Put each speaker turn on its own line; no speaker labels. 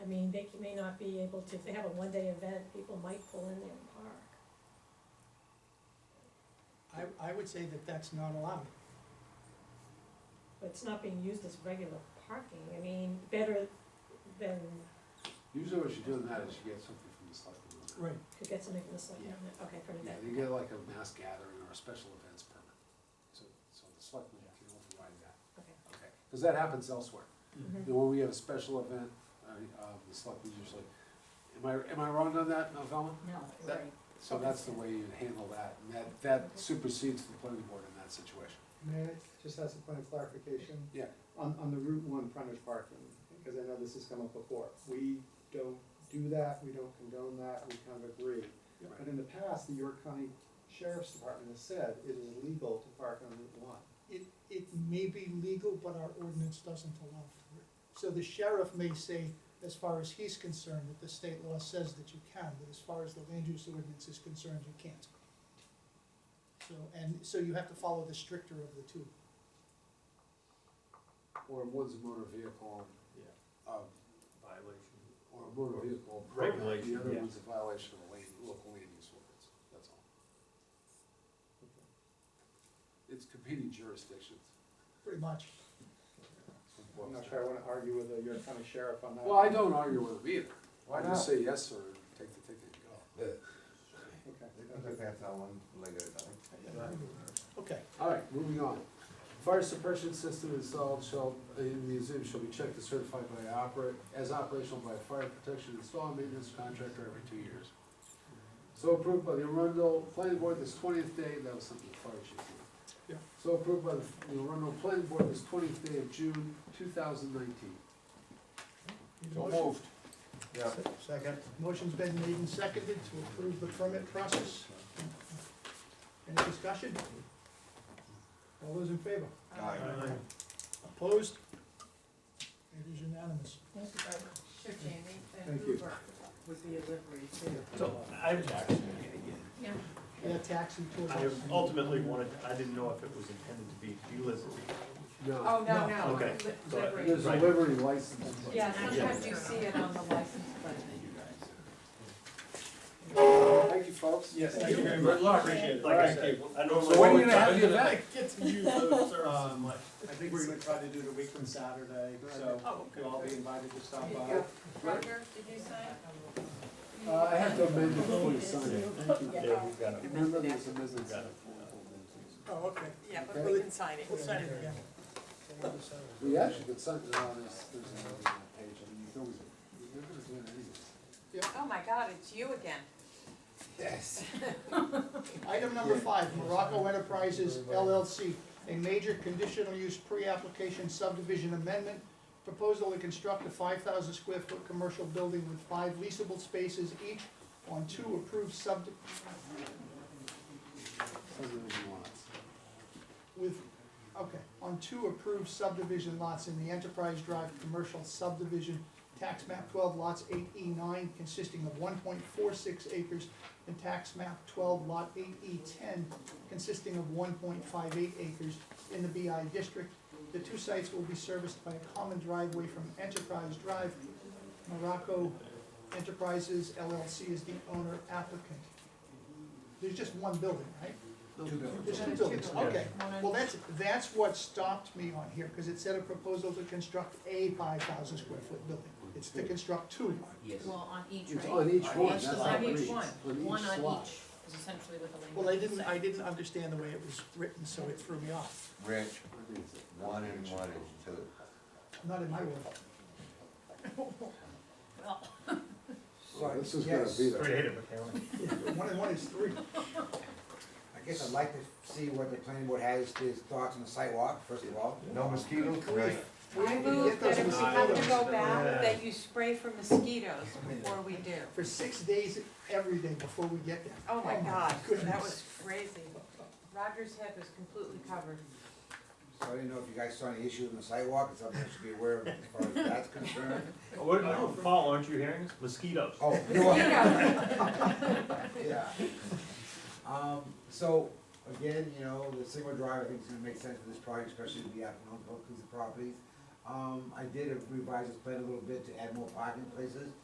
you may not be able to, if they have a one-day event, people might pull in there and park.
I, I would say that that's not allowed.
But it's not being used as regular parking, I mean, better than,
Usually what you do in that is you get something from the selectmen. on that.
Right.
could get something from the selectmen, okay, from
Yeah,
that.
you get like a mass gathering or a special events permit. So, so the selectmen can override that,
okay.
okay? Because that happens elsewhere.
Mhm.
When we have a special event, uh, uh, the selectmen usually, am I, am I wrong on that, Velma?
No,
That-
right.
So that's the way you handle that, and that, that supersedes the planning board in that situation.
May I just ask a point of clarification?
Yeah.
On, on the Route One frontage parking, because I know this has come up before, we don't do that, we don't condone that, we kind of agree. But in the past, the York County Sheriff's Department has said it is illegal to park on Route One.
It, it may be legal, but our ordinance doesn't allow for it. So the sheriff may say, as far as he's concerned, that the state law says that you can, but as far as the land use ordinance is concerned, you can't. So, and, so you have to follow the stricter of the two.
Or Wood's motor vehicle,
Yeah.
um,
violation.
or motor vehicle. program.
Regulation,
The other
yeah.
one's a violation of land, local land use ordinance, that's all. It's competing jurisdictions.
Pretty much.
I'm not sure I wanna argue with the York County Sheriff on that.
Well, I don't argue with them either.
Why
I just
not?
say yes, sir, and take the ticket and go.
They
Okay,
can
okay.
just have that one later, I think.
Okay.
All right, moving on. Fire suppression system installed shall, in the museum shall be checked and certified by operate, as operational by a fire protection install and maintenance contractor every two years. So approved by the Arundel Planning Board this twentieth day, that was something the fire chief did.
Yeah.
So approved by the Arundel Planning Board this twentieth day of June, two thousand nineteen.
moved.
Yeah.
Second.
Motion's been made and seconded to approve the permit process. Any discussion? All those in favor?
Um,
Aye.
Opposed? It is unanimous.
Thank you very much. Sure, Jamie, and
Thank you.
Uber would be a livery too.
So I was actually,
Yeah.
Yeah, taxi tours.
I ultimately wanted, I didn't know if it was intended to be delisted.
No,
Oh, no, no.
Okay.
li-
So, uh,
livery.
there's a
Right.
livery license.
Yeah, sometimes you see it on the license plate.
Thank you, folks.
Yes, thank you very much. Good luck. Appreciate it. Like I said, I normally.
So when are you gonna have the event?
Get to use those uh, services.
Um, I think we're gonna try to do it a week from Saturday, so
Oh, okay.
you'll all be invited to
There
stop
you
by.
go. Roger, did you sign?
Uh, I have to amend it before you sign it, thank you.
Yeah, we've got it.
Remember, there's a business.
Got it.
Oh, okay.
Yeah,
but
we
can sign it.
We'll sign it again.
We actually could sign, no, there's, there's another page, I mean, you can always, you're gonna do it anyways.
Oh, my God, it's you again.
Yes.
Item number five, Morocco Enterprises LLC, a major conditional use pre-application subdivision amendment. Proposal to construct a five thousand square foot commercial building with five leasable spaces each on two approved sub, with, okay, on two approved subdivision lots in the Enterprise Drive Commercial Subdivision, tax map twelve lots eight E nine consisting of one point four six acres and tax map twelve lot eight E ten consisting of one point five eight acres in the BI district. The two sites will be serviced by a common driveway from Enterprise Drive. Morocco Enterprises LLC is the owner applicant. There's just one building, right? There's two buildings, okay. Well, that's, that's what stopped me on here, because it said a proposal to construct a five thousand square foot building. It's to construct two.
Well, on each,
It's on each one, that's how
On
it
each
reads.
one, one on
slot.
each, is essentially what the language.
Well, I didn't,
said.
I didn't understand the way it was written, so it threw me off.
Rich,
I think it's-
one and one is two.
Not in my world.
Well,
Well, this is gonna be there.
Creative accounting.
One and one is three.
I guess I'd like to see what the planning board has, his thoughts on the sidewalk, first of all.
No mosquitoes? Right.
I move that if we have to go back, that you spray for mosquitoes before we do.
For six days, every day before we get there.
Oh my God, that
goodness.
was crazy. Roger's head was completely covered.
So I didn't know if you guys saw any issues on the sidewalk, it's something I should be aware of as far as that's concerned.
What, no, Paul, aren't you hearing this? Mosquitoes.
Oh, you know what?
Mosquitoes.
yeah. Um, so, again, you know, the single drive, I think is gonna make sense for this project, especially if the applicant owns both these properties. Um, I did revise this plan a little bit to add more parking places,